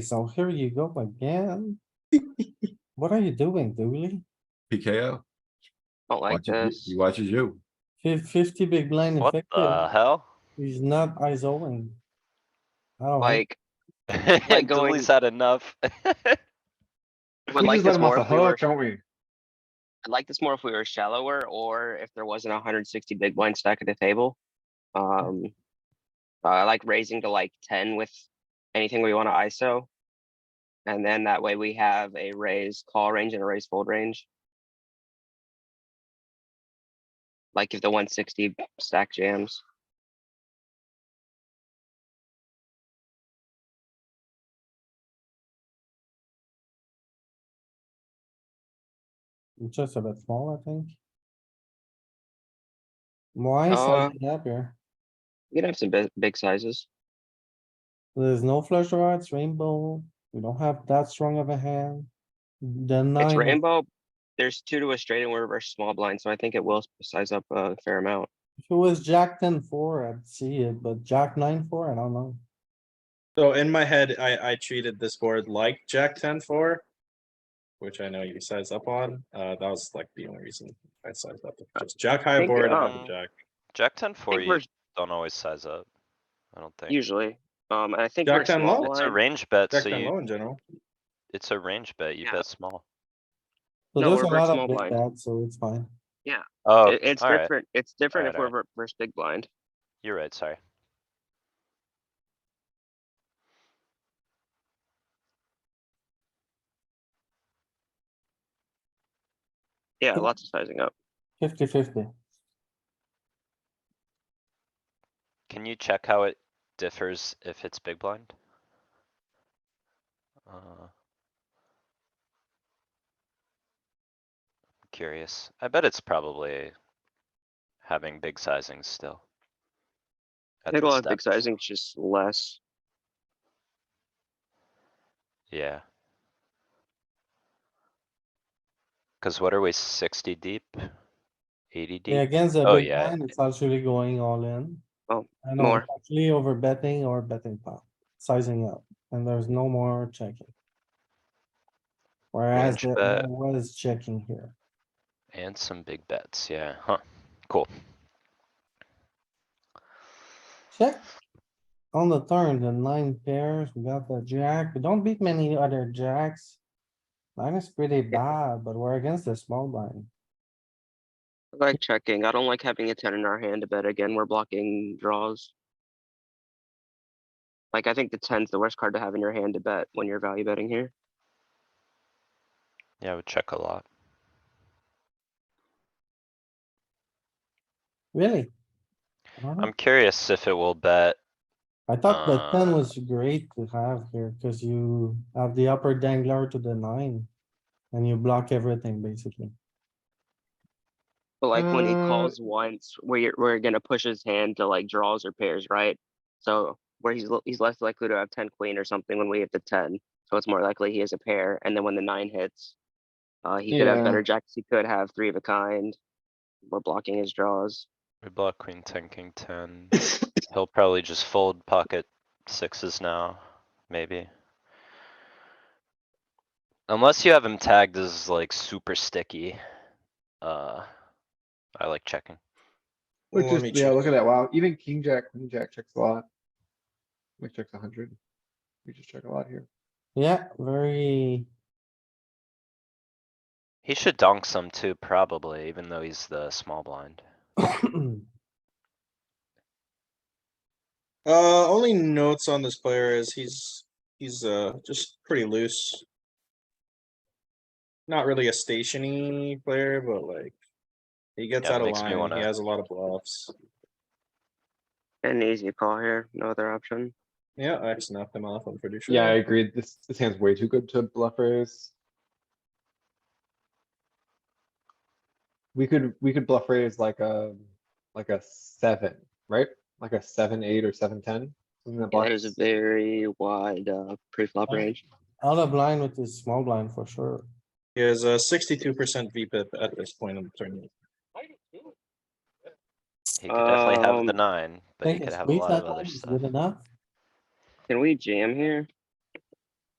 so here you go again. What are you doing, Dooley? PKO. Don't like Watches you- this. He watches you. Fif- Fifty big blind What the effective, hell? he's not isoling. Oh, Like, going- Dooley's had enough. would like this more if we were, Don't we? I'd like this more if we were shallower or if there wasn't hundred and sixty big blind stack at the table. Um, uh, I like raising to like ten with anything we wanna ISO. And then that way we have a raise call range and a raise fold range. Like if the one sixty stack jams. it's just a bit small, I think. Why is Uh, it up here? You can have some big, big sizes. There's no flush draw, it's rainbow, we don't have that strong of a hand. The It's nine, rainbow. There's two to a straight and we're versus small blind, so I think it will size up a fair amount. if it was jack ten four, I'd see it, but jack nine four, I don't know. So in my head, I, I treated this board like Jack ten four. Which I know you size up on, uh, that was like the only reason I sized up, Uh, just Jack high think, board, um, and Jack. Jack ten four, think you we're- don't always size up. I don't think. Usually, um, and I think Jack we're ten small low? It's a blind. range bet, Jack so ten you, low in general, it's a range bet, you Yeah. bet small. So No, there's we're a very lot small of big blind. bets, so it's fine. Oh, It- It's alright, different, it's different if Alright, we're ver- versus big blind. you're right, sorry. Yeah, Cool. lots of sizing up. Fifty fifty. Can you check how it differs if it's big blind? Uh, Curious. I bet it's probably having big sizings still. I at think a this lot of big depth. sizing, it's just less. Yeah. Cuz what are we, sixty deep? Eighty Yeah, deep? against a Oh, big yeah. blind, it's actually going all in. Oh, And I'm more. Actually over betting or betting pot, sizing up, and there's no more checking. Whereas Range there bet. was checking here. And some big bets, yeah, huh, cool. Check. On the turn, the nine pairs, we got the jack, we don't beat many other jacks. Nine is pretty bad, but we're against the small blind. I like checking, I don't like having a ten in our hand to bet again, we're blocking draws. Like, I think the ten's the worst card to have in your hand to bet when you're value betting here. Yeah, I would check a lot. Really? I don't know. I'm curious if it will bet, I thought the ten Uh, was great to have here, cause you have the upper dangler to the nine. And you block everything, basically. But like when he Uh, calls once, we're, we're gonna push his hand to like draws or pairs, right? So where he's, l- he's less likely to have ten queen or something when we hit the ten, so it's more likely he has a pair, and then when the nine hits. Uh, he could have Yeah. better jacks, he could have three of a kind. We're blocking his draws. we block queen ten, king ten, he'll probably just fold pocket sixes now, maybe. Unless you have him tagged as like super sticky, uh, I like checking. Well, Which let is, me yeah, check. look at that. Wow, even king jack, queen jack checks a lot. We check a hundred. We just check a lot here. Yeah, very, He should donk some too, probably, even though he's the small blind. uh, only notes on this player is he's, he's, uh, just pretty loose. Not really a stationy player, but like. He gets Yeah, out of makes me line, he wanna- has a lot of bluffs, An easy call here, no other option. yeah, I just knocked him off, I'm pretty sure. Yeah, I agree. This, this hand's way too good to bluffers. We could, we could bluff raise like a, like a seven, right? Like a seven, eight or seven, ten. something that Yeah, That is a bluffs. very wide, uh, pre-flop Okay. range. out of line with this small blind for sure. He has a sixty-two percent VPIP at this point in the tournament. He could definitely have the Um, nine, but he Think could it's have a squeeze lot of that line other is stuff. Good enough. Can we jam here?